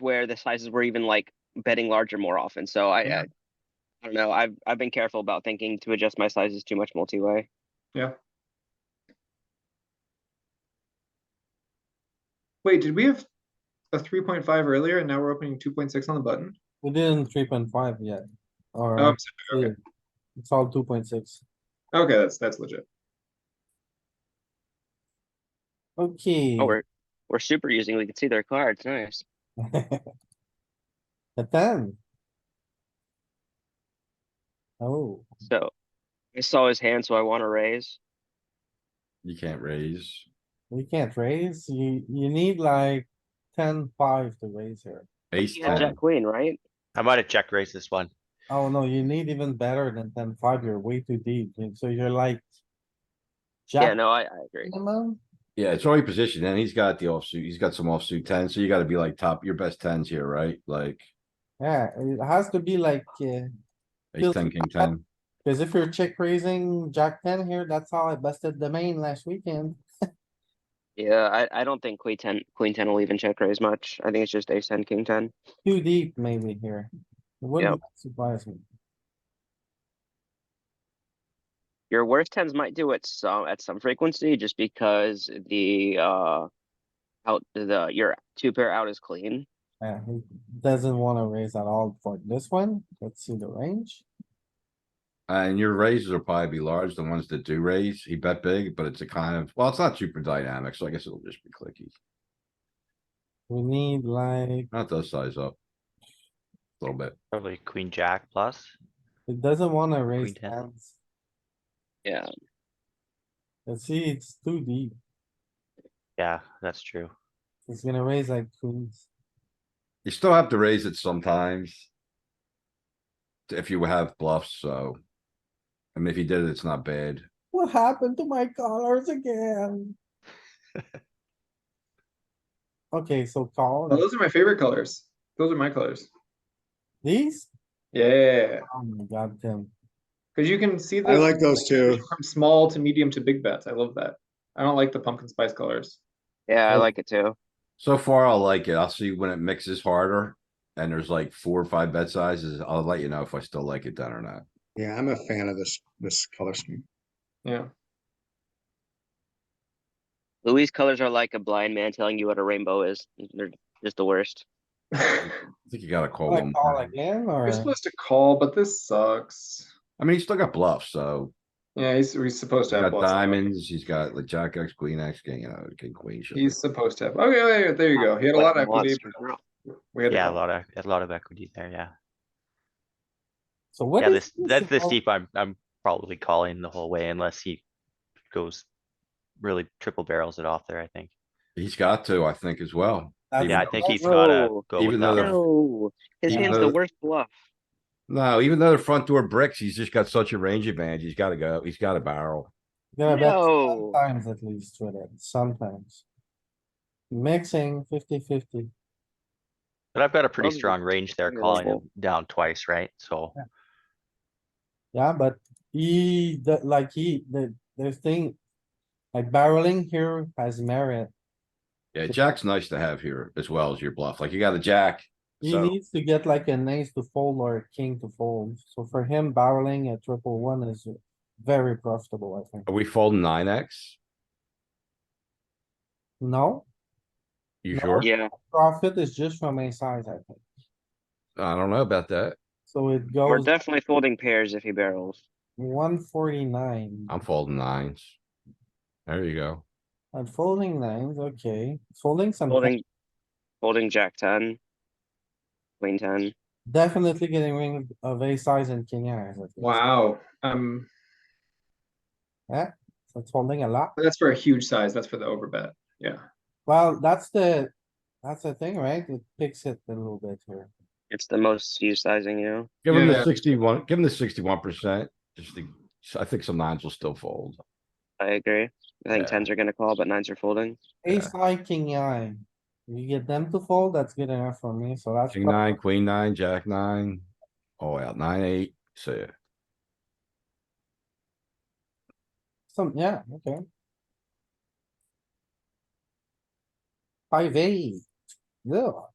where the sizes were even like betting larger more often. So I, Yeah. I, I don't know. I've I've been careful about thinking to adjust my sizes too much multi-way. Yeah. Wait, did we have a three point five earlier and now we're opening two point six on the button? We didn't three point five yet, or Uh-huh. Oh, I'm sorry, okay, actually, it's all two point six. okay, that's, that's legit. Okay. Oh, we're we're super using. We can see their cards. Nice. A ten. Oh, So I saw his hand, so I want to raise. You can't raise. we can't raise. You, you need like ten five to raise here. Ace He had ten. Jack Queen, right? I might have check raised this one. Oh no, you need even better than ten five. You're way too deep. and So you're like. Yeah. Jack No, I, I agree. minimum? Yeah, it's already positioned and he's got the offsuit. He's got some offsuit tens, so you gotta be like top, your best tens here, right? Like Yeah, it has to be like, uh, ace Feels- ten, king ten. cause if you're check raising Jack ten here, that's how I busted the main last weekend. Yeah, I, I don't think Queen ten Queen ten will even check raise much. I think it's just Ace ten King ten. Too deep maybe here. It Wouldn't surprise me. Your worst tens might do it some at some frequency, just because the uh out the your two pair out is clean. Yeah, he doesn't wanna raise at all for this one. Let's see the range. And your raises will probably be large, the ones that do raise. He bet big, but it's a kind of, well, it's not super dynamic, so I guess it'll just be clicky. We need like, That does size up. a Little bit. Probably queen jack plus. it doesn't wanna raise ten. hands. Yeah. Let's see, it's too deep. Yeah, that's true. It's gonna raise like queens. You still have to raise it sometimes. If you have bluffs, so. I mean, if you did it, it's not bad. What happened to my colors again? Okay, so Well, call Those are my favorite colors. Those are my colors. these? Yeah, Oh my god, Tim. cuz you can see the. I like those too. From small to medium to big bets. I love that. I don't like the pumpkin spice colors. Yeah, I Oh. like it too. So far, I like it. I'll see when it mixes harder. And there's like four or five bet sizes. I'll let you know if I still like it then or not. Yeah, I'm a fan of this, this color scheme. Yeah. Louis' colors are like a blind man telling you what a rainbow is. They're just the worst. We're I think you gotta call Like them. call again or? supposed to call, but this sucks. I mean, he's still got bluffs, so Yeah, he's, he's supposed he's to have. got bluffs. diamonds, he's got like jack X, queen X, king, you know, king, queen. shit. He's supposed to have. Okay, there- there you go. He had a lot of equity. but We had. Yeah, a lot of, a lot of equity there, yeah. So what Yeah, is? this, that's the about- steep I'm, I'm probably calling the whole way unless he goes really triple barrels it off there, I think. He's got to, I think, as well. that's Yeah, I the think best he's gotta No. go with Even that though the- one. No, his Even hand's though- the worst bluff. No, even though the front door bricks, he's just got such a range advantage. He's gotta go. He's got a barrel. Yeah, bet No. sometimes at least with it, sometimes. Mixing 50-50. But I've got a pretty Probably strong range there pretty calling level. him down twice, right? So, yeah, but he, the- like he, the, the thing. Like barreling here has merit, Yeah, jack's nice to have here as well as your bluff. Like you got a jack. he So- needs to get like an ace to fold or a king to fold, so for him barreling a triple one is very profitable, I think, Are we folding nine X? no? You No. sure? Yeah, Profit is just from a size, I think, I don't know about that. so it we're goes definitely folding pairs if he barrels. one forty-nine. I'm folding nines. There you go. I'm folding nines, okay, folding some. Folding, folding Jack ten, Queen ten. Definitely getting rid of ace size and king eyes. Wow, um, It's holding a lot. that's for a huge size. That's for the overbet. Yeah, Well, that's the, that's the thing, right? It picks it a little bit here. It's the most used sizing, you know. Give him Yeah. the sixty-one, give him the sixty-one percent. Just the, I think some nines will still fold. I agree. I think Yeah. tens are gonna call, but nines are folding. Ace high, king eye. You get them to fold, that's good enough for me, so that's. King nine, queen nine, jack nine, all out, nine, eight, so yeah. Some, yeah, okay. Five eight. Yeah,